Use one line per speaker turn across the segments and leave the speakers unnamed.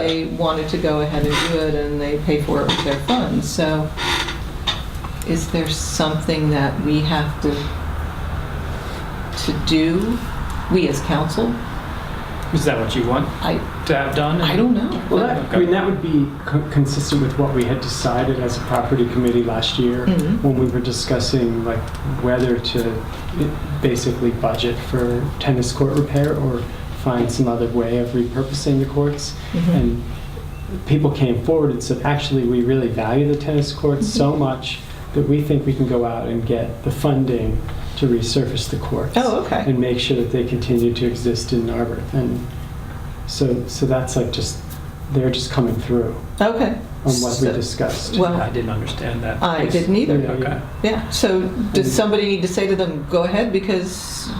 they wanted to go ahead and do it, and they pay for it with their funds, so is there something that we have to, to do, we as council?
Is that what you want
I,
to have done?
I don't know.
Well, that, I mean, that would be co- consistent with what we had decided as a property committee last year
Mhm.
when we were discussing like whether to eh, basically budget for tennis court repair or find some other way of repurposing the courts.
Mhm.
And people came forward and said, actually, we really value the tennis courts so much that we think we can go out and get the funding to resurface the courts
Oh, okay.
and make sure that they continue to exist in Narberth. And so, so that's like just, they're just coming through
Okay.
on what we
So-
discussed.
Well-
I didn't understand that.
I
piece.
didn't either.
Yeah,
Okay.
yeah.
Yeah, so does somebody need to say to them, go ahead, because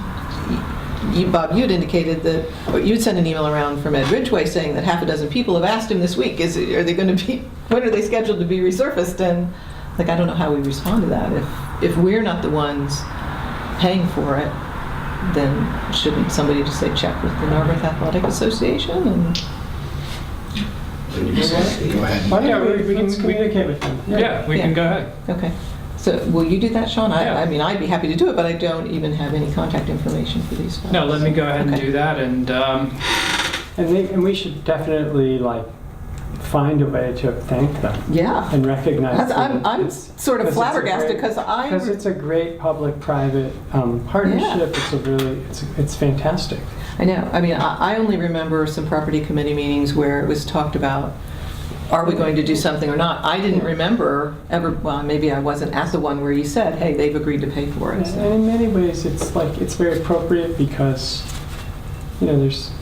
you, Bob, you'd indicated that, or you'd sent an email around from Ed Ridgway saying that half a dozen people have asked him this week, is, it- are they going to be, when are they scheduled to be resurfaced? And, like, I don't know how we respond to that. If, if we're not the ones paying for it, then shouldn't somebody just say, check with the Narberth Athletic Association? And
When you say, go ahead.
Well, yeah, we, we can communicate with them.
Yeah, we can
Yeah.
go ahead.
Okay, so will you do that, Sean?
Yeah.
I, I mean, I'd be happy to do it, but I don't even have any contact information for these folks.
No, let me go ahead and
Okay.
do that and, um,
And, they, and we should definitely like find a way to thank them
Yeah.
and recognize
That's- I'm,
them.
I'm
It's-
sort of
because it's a
flabbergasted
great-
because I,
Because it's a great public-private um, partnership. It's a really, it's, it's fantastic.
I know, I mean, I I only remember some property committee meetings where it was talked about, are we going to do something or not? I didn't remember ever, well, maybe I wasn't at the one where you said, hey, they've agreed to pay for it.
And
so.
and in many ways, it's like, it's very appropriate because, you know, there's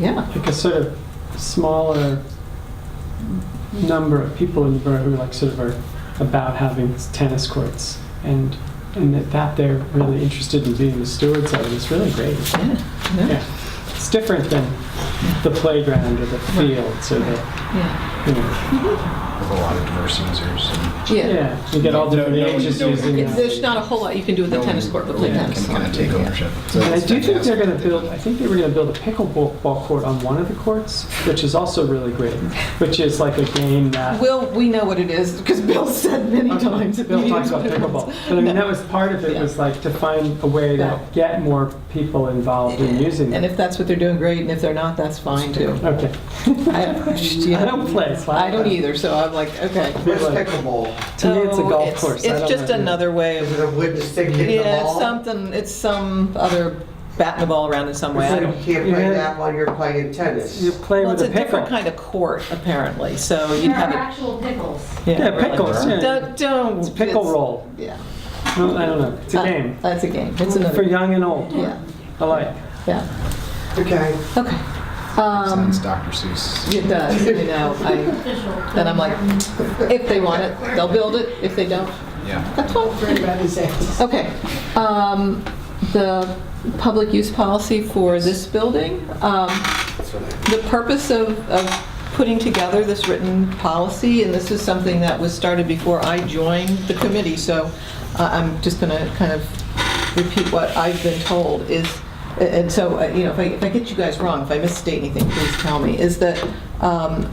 Yeah,
like a sort of smaller number of people in the borough who like sort of are about having tennis courts and and that, that they're really interested in being the stewards of it is really great.
yeah, yeah,
Yeah. It's different than the playground or the fields or the
yeah.
you know,
With a lot of diverse users. and
Yeah.
yeah. You get all different
No, no,
ages
no.
using
It's-
that.
There's not a whole lot you can do with the
no one
tennis court, but play
really
tennis.
Can kind of take
Yeah.
ownership. So
And I
it's
do think they're
fantastic.
going to build, I think they were going to build a pickleball ball court on one of the courts, which is also really great, which is like a game that
Will, we know what it is, because Bill said many
Okay,
times. at
Bill
meetings
talks about
what it was.
pickleball. But I mean, that was part of it,
Yeah.
was like to find a way
Yeah.
to get more people involved in using
And
it.
if that's what they're doing, great, and if they're not, that's fine too.
Okay.
I
I don't play, so
I don't either, so I'm like, okay.
They're
Where's
like-
pickleball?
To me, it's a
Oh,
golf course. I
It's
don't
just
know.
another way
Is
of,
it a wooden stick hitting the
yeah,
ball?
it's something, it's some other batting the ball around in some way. I
So
don't-
you can't play
Yeah.
that while you're playing tennis.
You play
Well, it's
with
a
a pickle.
different kind of court, apparently, so you'd
There are
have it.
actual pickles.
Yeah,
really.
pickles, yeah.
Don't, don't.
It's pickle
it's-
roll.
Yeah.
No, I don't know. It's a
Uh,
game.
That's a game, it's
For
another,
young and old
yeah,
alike.
yeah,
Okay.
okay. Um,
Sounds Dr. Seuss.
It does, you know, I, and I'm like, if they want it, they'll build it, if they don't,
Yeah.
that's fine. Okay, um, the public use policy for this building, um, the purpose of, of putting together this written policy, and this is something that was started before I joined the committee, so uh, I'm just gonna kind of repeat what I've been told, is, and so, uh, you know, if I, if I get you guys wrong, if I misstate anything, please tell me, is that, um,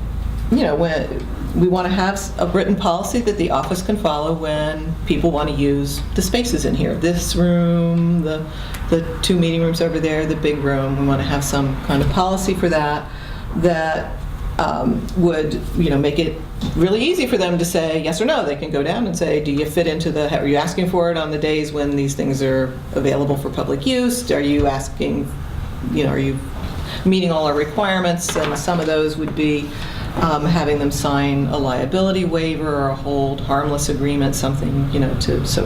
you know, when, we want to have a written policy that the office can follow when people want to use the spaces in here. This room, the, the two meeting rooms over there, the big room, we want to have some kind of policy for that, that um, would, you know, make it really easy for them to say yes or no. They can go down and say, do you fit into the, are you asking for it on the days when these things are available for public use? Are you asking, you know, are you meeting all our requirements, and some of those would be um, having them sign a liability waiver or a hold harmless agreement, something, you know, to, so,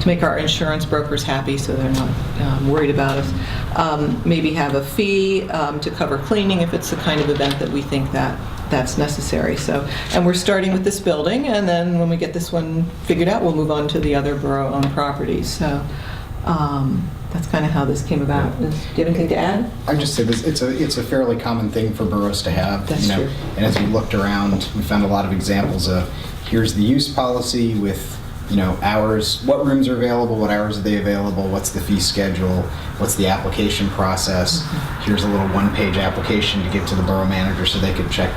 to make our insurance brokers happy so they're not um, worried about us. Um, Maybe have a fee um, to cover cleaning if it's the kind of event that we think that, that's necessary, so. And we're starting with this building, and then when we get this one figured out, we'll move on to the other borough-owned properties, so. um, That's kind of how this came about. Is- Do you have anything to add?
I'd just say this, it's a, it's a fairly common thing for boroughs to have.
That's
you know,
true.
And as we looked around, we found a lot of examples of, here's the use policy with you know, hours, what rooms are available, what hours are they available, what's the fee schedule, what's the
Mm-hmm.
application process. Here's a little one-page application to give to the borough manager so they could check